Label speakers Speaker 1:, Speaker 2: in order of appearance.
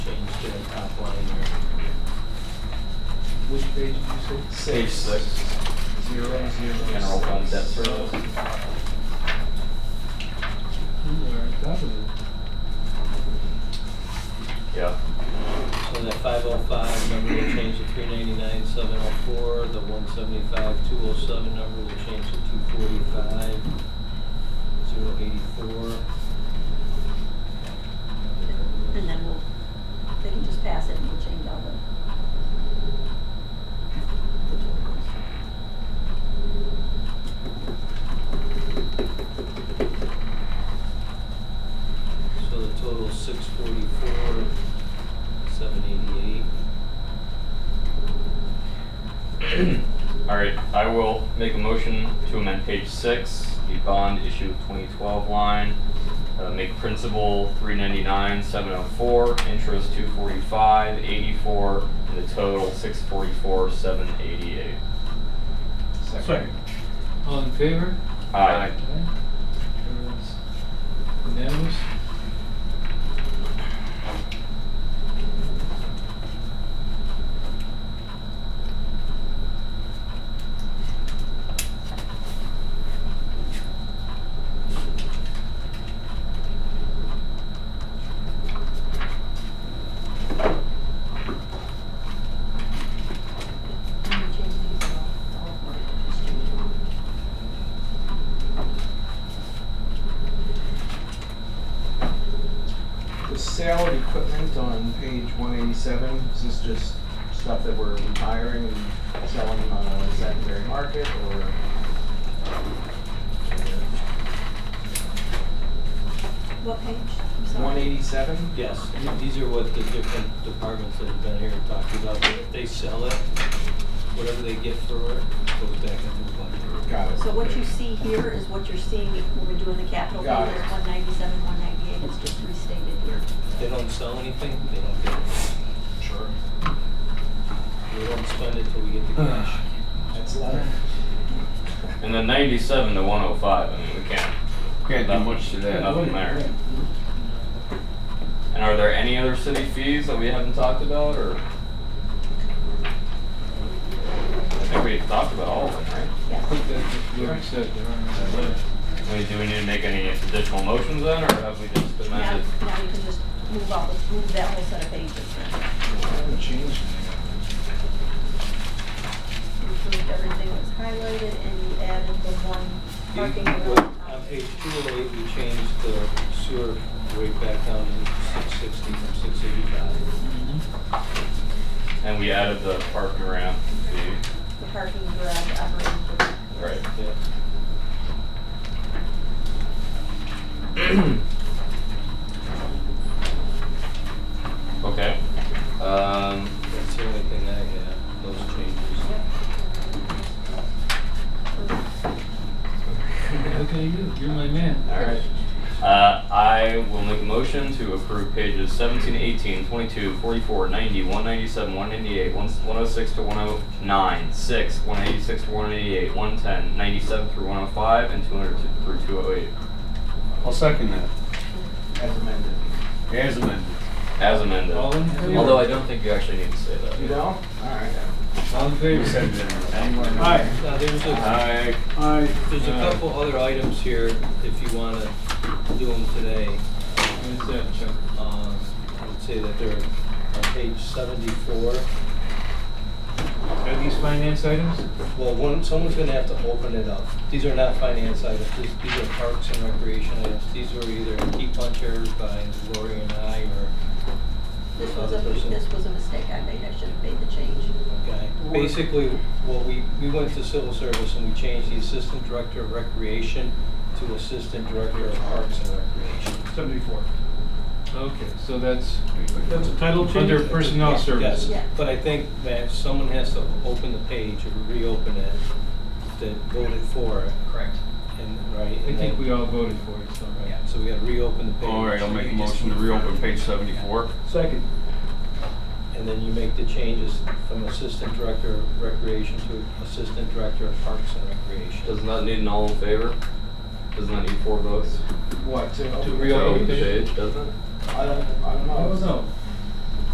Speaker 1: Which page did you say?
Speaker 2: Page six.
Speaker 1: Zero, zero.
Speaker 2: General fund debt service.
Speaker 1: You are on top of it.
Speaker 2: Yeah.
Speaker 3: So that five oh five number will change to three ninety-nine, seven oh four, the one seventy-five, two oh seven number will change to two forty-five, zero eighty-four.
Speaker 4: And then we'll, they can just pass it and we'll change all the. the totals.
Speaker 3: So the total is six forty-four, seven eighty-eight.
Speaker 2: All right, I will make a motion to amend page six, the bond issue of 2012 line, uh, make principal 399, 704, interest 245, 84, and the total 644, 788.
Speaker 5: Second.
Speaker 1: All in favor?
Speaker 2: Aye.
Speaker 1: Everyone's unanimous?
Speaker 4: And we change these all, all of them, just change them.
Speaker 5: The sale of equipment on page one eighty-seven, is this just stuff that we're retiring and selling on a secondary market or?
Speaker 4: What page? I'm sorry.
Speaker 5: One eighty-seven?
Speaker 3: Yes, th- these are what the different departments that have been here and talked about, if they sell it, whatever they get for it, goes back into the budget.
Speaker 5: Got it.
Speaker 4: So what you see here is what you're seeing if- when we're doing the capital
Speaker 5: Got
Speaker 4: page,
Speaker 5: it.
Speaker 4: one ninety-seven, one ninety-eight, it's just restated here.
Speaker 3: If they don't sell anything, they don't get it.
Speaker 5: Sure.
Speaker 3: We don't spend it till we get the cash.
Speaker 5: That's a lot.
Speaker 2: And then 97 to 105, I mean, we can't,
Speaker 6: Can't do much to that.
Speaker 2: nothing there. And are there any other city fees that we haven't talked about, or? I think we talked about all of them, right?
Speaker 1: I
Speaker 4: Yes.
Speaker 1: think that's what George said, they're on that list.
Speaker 2: I mean, do we need to make any additional motions then, or have we just
Speaker 4: Now,
Speaker 2: amended?
Speaker 4: now you can just move all the, move that whole set of pages then.
Speaker 5: I haven't changed anything.
Speaker 4: You Approved everything that was highlighted and you added the one parking.
Speaker 3: Well,
Speaker 4: lot.
Speaker 3: On page two oh eight, we changed the sewer rate back down to six sixty from six eighty-five.
Speaker 2: And we added the park and ramp fee.
Speaker 4: The parking garage operating.
Speaker 2: Right.
Speaker 3: Yeah.
Speaker 2: Okay. Um,
Speaker 3: That's the only thing I have, those changes.
Speaker 1: Look at you, you're my man.
Speaker 2: all right. Uh, I will make a motion to approve pages 17, 18, 22, 44, 90, 197, 198, 106 to 109, 6, 186 to 188, 110, 97 through 105, and 200 to- through 208.
Speaker 6: I'll second that.
Speaker 5: As amended.
Speaker 6: As amended.
Speaker 2: As amended.
Speaker 1: All in favor?
Speaker 2: Although I don't think you actually need to say that.
Speaker 5: You don't? All right.
Speaker 1: All in favor?
Speaker 5: Anyone?
Speaker 3: Now, Uh, there's a,
Speaker 2: I
Speaker 3: there's a
Speaker 1: Uh,
Speaker 3: couple other items here, if you wanna do them today.
Speaker 1: What is that, Chuck?
Speaker 3: Um, I would say that they're on page seventy-four.
Speaker 1: Are these finance items?
Speaker 3: Well, one, someone's gonna have to open it up. These are not finance items, these, these are parks and recreation items. These were either key punchers by Lori and I, or
Speaker 4: This was a,
Speaker 3: Other person.
Speaker 4: this was a mistake I made, I should have made the change.
Speaker 3: Okay, basically, what we, we went to civil service and we changed the assistant director of recreation to assistant director of parks and recreation.
Speaker 7: Seventy-four.
Speaker 1: Okay, so that's
Speaker 7: That's a title change?
Speaker 1: under personnel services.
Speaker 3: Yes, but I think that someone has to open the page or reopen it that voted for it. Correct. And, right?
Speaker 1: I think we all voted for it, so.
Speaker 3: Yeah, so we gotta reopen the page.
Speaker 6: All right, I'll make a motion to reopen page seventy-four.
Speaker 7: Second.
Speaker 3: And then you make the changes from assistant director of recreation to assistant director of parks and recreation.
Speaker 2: Doesn't that need an all in favor? Doesn't that need four votes?
Speaker 5: What, to?
Speaker 1: To reopen
Speaker 2: So,
Speaker 1: the page?
Speaker 2: Doesn't it?
Speaker 5: I don't, I don't know.
Speaker 1: I don't know.